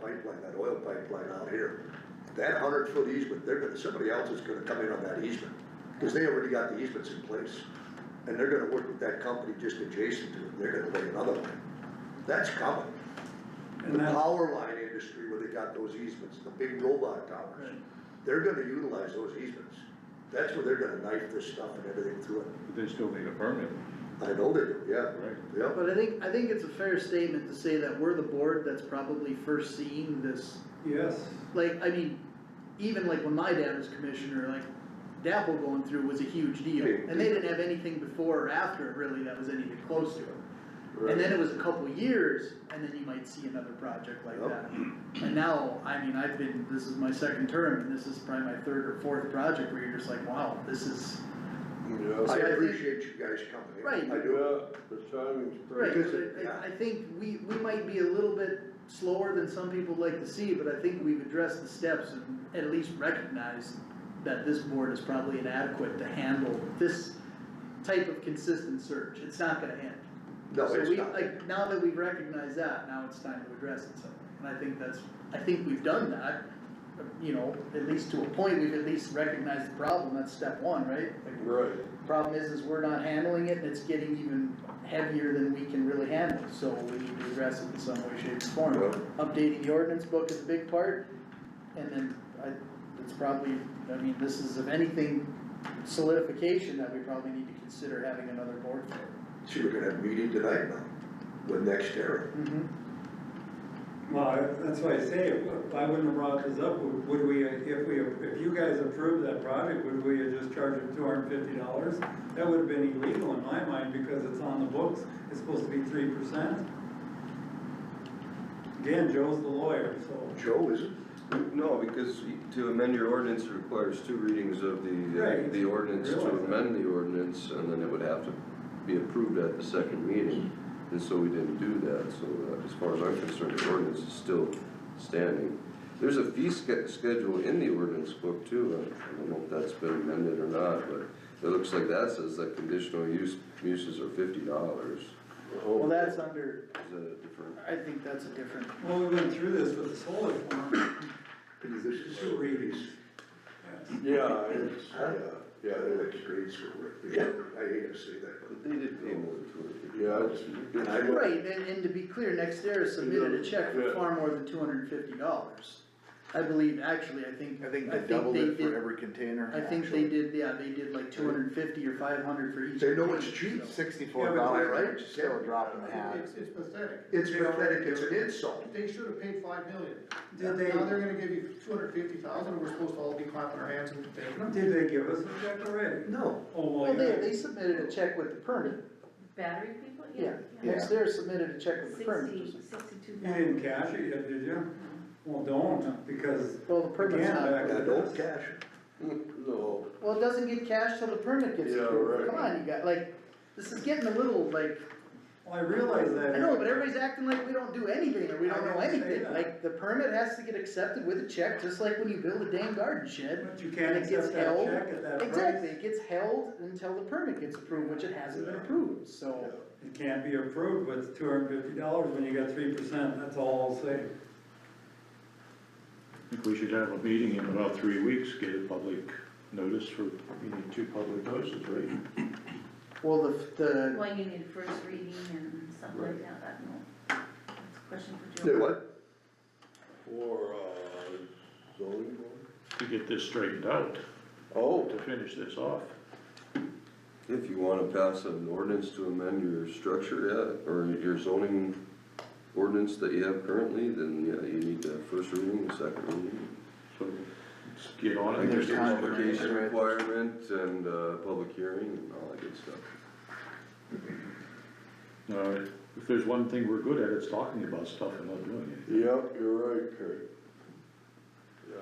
pipeline, that oil pipeline out here, that hundred foot easement, they're gonna, somebody else is gonna come in on that easement, cause they already got the easements in place. And they're gonna work with that company just adjacent to it, they're gonna lay another line, that's coming. The And that- power line industry where they got those easements, the big robot towers, Right. they're gonna utilize those easements. That's where they're gonna knife this stuff and everything through it, But they still need a permit, I know they do, yeah, right? yeah. But I think, I think it's a fair statement to say that we're the board that's probably first seeing this, Yes, like, I mean, even like when my dad was commissioner, like, Dapple going through was a huge deal, Big and they deal. didn't have anything before or after it really that was anything close to it. And then it was a couple years, and then you might see another project like Yep. that. And now, I mean, I've been, this is my second term, and this is probably my third or fourth project where you're just like, wow, this is, I I think- appreciate you guys coming in. Right. I do. Yeah, the timing's right, pretty. Because it- but yeah. I, I think we, we might be a little bit slower than some people like to see, but I think we've addressed the steps and at least recognized that this board is probably inadequate to handle this type of consistent search, it's not gonna end. No, So it's we, not. like, now that we've recognized that, now it's time to address it somehow, and I think that's, I think we've done that. You know, at least to a point, we've at least recognized the problem, that's step one, right? Like, Right, Problem is, is we're not handling it, and it's getting even heavier than we can really handle, so we need to address it in some way, shape, or form. Yeah. Updating the ordinance book is a big part, and then I, it's probably, I mean, this is if anything, solidification that we probably need to consider having another board for. See, we're gonna have a meeting tonight now with Next Era. Mm-hmm. well, I- that's why I say, if I wouldn't have brought this up, would would we, if we, if you guys approved that project, would we have just charged them two hundred and fifty dollars? That would have been illegal in my mind, because it's on the books, it's supposed to be three percent. Again, Joe's the lawyer, so. Joe, is it? no, because to amend your ordinance requires two readings of the, uh, Right. the ordinance to Realize that. amend the ordinance, and then it would have to be approved at the second meeting. And so we didn't do that, so uh, as far as I'm concerned, the ordinance is still standing. There's a fee sch- schedule in the ordinance book too, I I don't know if that's been amended or not, but it looks like that says that conditional use, uses are fifty dollars. Well, that's under, Is that a different? I think that's a different, Well, we went through this with the solar farm, This is Two readings. yes. Yeah, Yeah, yeah, they're like grade school, right? Yeah, I hate to say that, But they did pay more than Yeah, twenty. but. I would- right, and, and to be clear, Nextera submitted a check for far more than two hundred and fifty dollars. I believe, actually, I think, I think they did, every container. I think they did, yeah, they did like two hundred and fifty or five hundred for each. They know it's container, cheap. so. Sixty-four Yeah, dollars, but- right, still a drop in the hat. It's, it's pathetic. It's pathetic, it's an insult. They should have paid five million. Did they- Now they're gonna give you two hundred fifty thousand, we're supposed to all be clapping our hands and thanking them. Did they give us a check already? No, Oh, well, Well, they, yeah. they submitted a check with the permit, Battery people? yeah, Yeah. Nextera submitted a check with the permit. Sixty, sixty-two You didn't thousand. cash it yet, did you? Well, don't, because Well, the permit's Again, not, back- I don't cash it. No. well, it doesn't get cashed till the permit gets Yeah, approved, right. come on, you got, like, this is getting a little like, well, I realize that. I know, but everybody's acting like we don't do anything or we don't know I didn't say anything, that. like, the permit has to get accepted with a check, just like when you build a dang garden shed. But you can't And it gets accept that held. check at that price. Exactly, it gets held until the permit gets approved, which it hasn't been approved, so. It can't be approved with two hundred and fifty dollars when you got three percent, that's all I'll say. I think we should have a meeting in about three weeks, get a public notice for, you need two public notices, right? Well, the, the, Well, you need first reading and stuff like that, I don't know. That's a question for Joe. They what? For, uh, zoning To get this straightened out, Oh. to finish this off. If you wanna pass an ordinance to amend your structure, yeah, or your zoning ordinance that you have currently, then, yeah, you need the first reading and second reading. So let's get on Like it. there's There's time for notification it. requirement and, uh, public hearing and all that good stuff. Uh, If there's one thing we're good at, it's talking about stuff and not doing it. Yep, you're right, Kurt. Yeah.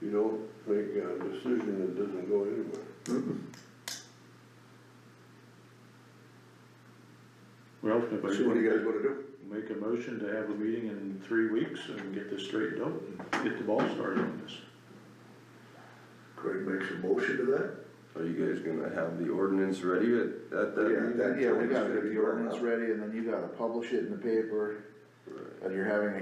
You don't make a decision that doesn't go anywhere. Well, if anybody So what do you guys wanna do? make a motion to have a meeting in three weeks and get this straightened out and get the ball started on this. Craig makes a motion to that? Are you guys gonna have the ordinance ready at, at that Yeah, meeting? that- Uh, Yeah, we gotta It's gonna get be the drawn ordinance up. ready, and then you gotta publish it in the paper, Right. and you're having a